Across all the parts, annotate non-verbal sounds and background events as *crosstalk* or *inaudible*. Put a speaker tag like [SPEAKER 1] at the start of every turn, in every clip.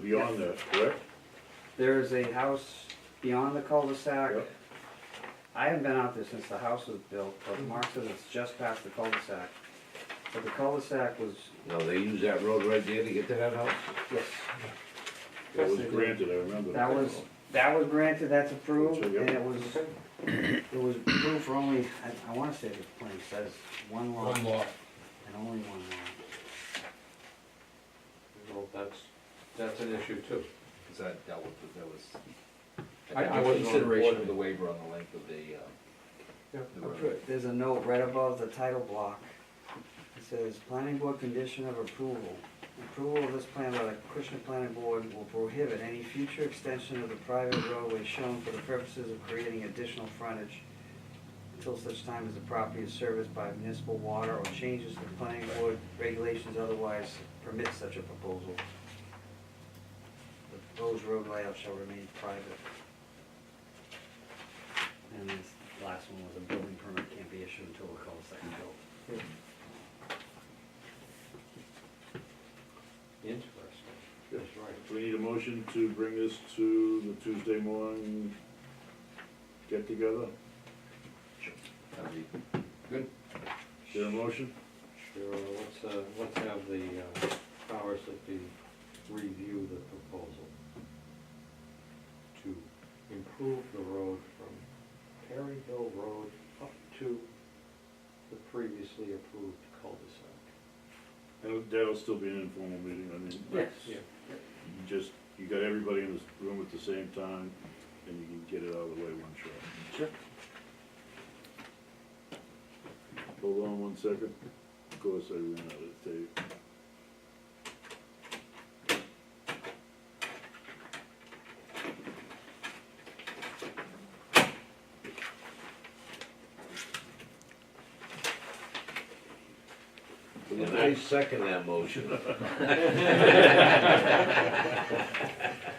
[SPEAKER 1] Beyond that, correct?
[SPEAKER 2] There's a house beyond the cul-de-sac.
[SPEAKER 1] Yep.
[SPEAKER 2] I haven't been out there since the house was built, but
[SPEAKER 1] Mm-hmm.
[SPEAKER 2] Mark says it's just past the cul-de-sac. But the cul-de-sac was,
[SPEAKER 3] No, they use that road right there to get to that house?
[SPEAKER 2] yes,
[SPEAKER 1] That was
[SPEAKER 2] Yes, it is.
[SPEAKER 1] granted, I remember.
[SPEAKER 2] that was, that was granted, that's approved,
[SPEAKER 1] Yep.
[SPEAKER 2] and it was, it was approved for only, I, I wanna say the plan says one lot
[SPEAKER 4] One
[SPEAKER 2] and
[SPEAKER 4] lot.
[SPEAKER 2] only one lot.
[SPEAKER 5] Well, that's, that's an issue too.
[SPEAKER 6] Because that dealt with, that was.
[SPEAKER 5] I- I
[SPEAKER 6] that
[SPEAKER 5] wasn't
[SPEAKER 6] was
[SPEAKER 5] on the board
[SPEAKER 6] Consideration of
[SPEAKER 5] then.
[SPEAKER 6] the waiver on the length of the, uh,
[SPEAKER 5] Yeah,
[SPEAKER 6] the road.
[SPEAKER 2] There's a note right above the title block. It says, planning board condition of approval. Approval of this plan by the Acushnet Planning Board will prohibit any future extension of the private roadway shown for the purposes of creating additional frontage until such time as the property is serviced by municipal water or changes to the planning board regulations otherwise permit such a proposal. The proposed road layout shall remain private. And this last one was a building permit can't be issued until the cul-de-sac is built.
[SPEAKER 5] Interesting. That's right.
[SPEAKER 1] We need a motion to bring this to the Tuesday morning get together.
[SPEAKER 6] That'd be-
[SPEAKER 1] Is there a motion?
[SPEAKER 5] Sure, let's, uh, let's have the uh, powers that be review the proposal to improve the road from Perry Hill Road up to the previously approved cul-de-sac.
[SPEAKER 1] That'll- That'll still be an informal meeting, I mean. that's-
[SPEAKER 5] Yeah.
[SPEAKER 1] You just, you got everybody in this room at the same time, and you can get it out of the way one shot.
[SPEAKER 2] Sure.
[SPEAKER 1] Hold on one second. Of course, I ran out of tape.
[SPEAKER 3] And I second that
[SPEAKER 6] *laughs*
[SPEAKER 3] motion.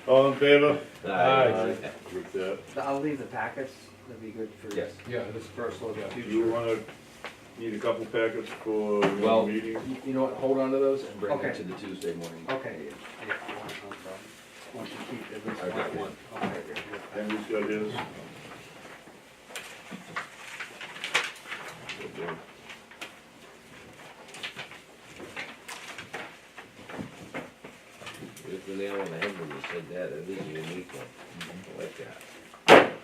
[SPEAKER 1] All in favor?
[SPEAKER 3] Aye.
[SPEAKER 1] With that,
[SPEAKER 2] I'll leave the packets, that'd be good for.
[SPEAKER 6] Yes.
[SPEAKER 4] Yeah, this first look at.
[SPEAKER 1] do you wanna, need a couple packets for your
[SPEAKER 6] Well,
[SPEAKER 1] meeting?
[SPEAKER 6] You you know what, hold on to those and bring them
[SPEAKER 2] Okay.
[SPEAKER 6] to the Tuesday morning.
[SPEAKER 2] Okay. Yeah, no problem. Want to keep at least
[SPEAKER 6] I got
[SPEAKER 2] one?
[SPEAKER 6] one.
[SPEAKER 2] Okay.
[SPEAKER 1] Henry's got his.
[SPEAKER 3] Hit the nail on the head when you said that, it is a unique one,
[SPEAKER 6] Mm-hmm.
[SPEAKER 3] I like that.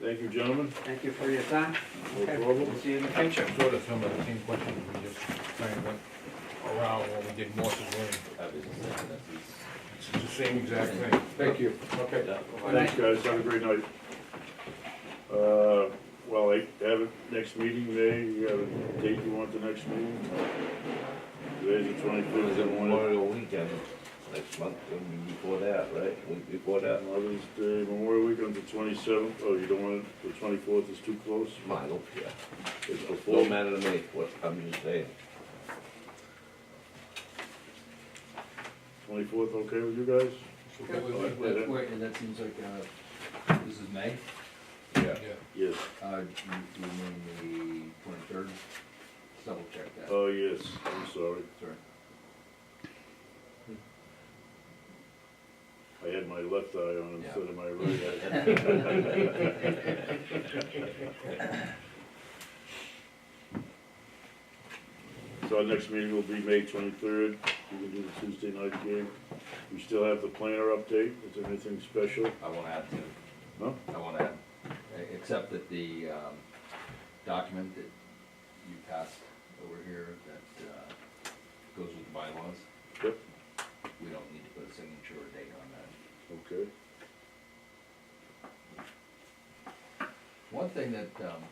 [SPEAKER 1] Thank you, gentlemen.
[SPEAKER 2] Thank you for your time.
[SPEAKER 1] No
[SPEAKER 2] Okay.
[SPEAKER 1] problem.
[SPEAKER 2] We'll see you in the
[SPEAKER 4] I
[SPEAKER 2] future.
[SPEAKER 4] checked sort of some of the same questions, we just kind of went around when we did Morse's Lane.
[SPEAKER 6] That was- that's-
[SPEAKER 4] It's the same exact thing.
[SPEAKER 5] Thank you. Okay.
[SPEAKER 1] Thanks, guys, have a great night. Uh, well, I have a next meeting, May, you have a date you want the next meeting? Today's the
[SPEAKER 3] There's
[SPEAKER 1] twenty-fifth, I want
[SPEAKER 3] Memorial weekend, next month, and before that, right, week before that.
[SPEAKER 1] Mother's Day, Memorial Weekend's the twenty-seventh, oh, you don't want, it? the twenty-fourth is too close?
[SPEAKER 3] Come on, I don't care,
[SPEAKER 1] It's before,
[SPEAKER 3] don't matter to me, what, I'm just saying.
[SPEAKER 1] twenty-fourth, okay with you guys?
[SPEAKER 4] Okay, we- we-
[SPEAKER 1] Wait,
[SPEAKER 6] that-
[SPEAKER 1] that-
[SPEAKER 6] Wait, and that seems like, uh, this is May,
[SPEAKER 3] Yeah.
[SPEAKER 4] Yeah.
[SPEAKER 1] Yes,
[SPEAKER 6] uh, do you mean the twenty-third? Double check that,
[SPEAKER 1] oh, yes, I'm sorry,
[SPEAKER 6] sorry.
[SPEAKER 1] I had my left eye on
[SPEAKER 6] Yeah.
[SPEAKER 1] instead of my right eye.
[SPEAKER 6] *laughs*
[SPEAKER 1] So our next meeting will be May twenty-third, we can do the Tuesday night game. We still have the planner update, is there anything special?
[SPEAKER 6] I won't add to it.
[SPEAKER 1] No?
[SPEAKER 6] I won't add, e- except that the um, document that you passed over here that uh, goes with the bylaws,
[SPEAKER 1] Yep,
[SPEAKER 6] we don't need to put a signature or date on that.
[SPEAKER 1] okay.
[SPEAKER 6] One thing that um,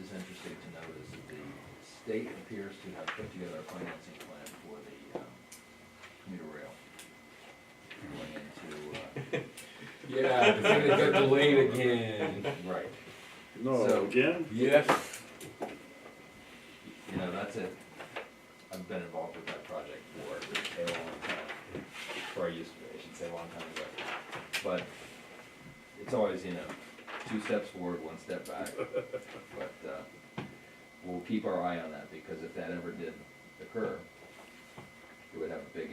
[SPEAKER 6] is interesting to note is that the state appears to have put together a financing plan for the um, commuter rail. Going into, uh,
[SPEAKER 4] *laughs* Yeah, the thing that got delayed again.
[SPEAKER 6] uh, right,
[SPEAKER 1] No,
[SPEAKER 6] So-
[SPEAKER 1] again?
[SPEAKER 4] Yes.
[SPEAKER 6] you know, that's it. I've been involved with that project for a long time, or I used to, be, I should say, a long time ago. But it's always, you know, two steps forward, one step back. But, uh, we'll keep our eye on that, because if that ever did occur, it would have a big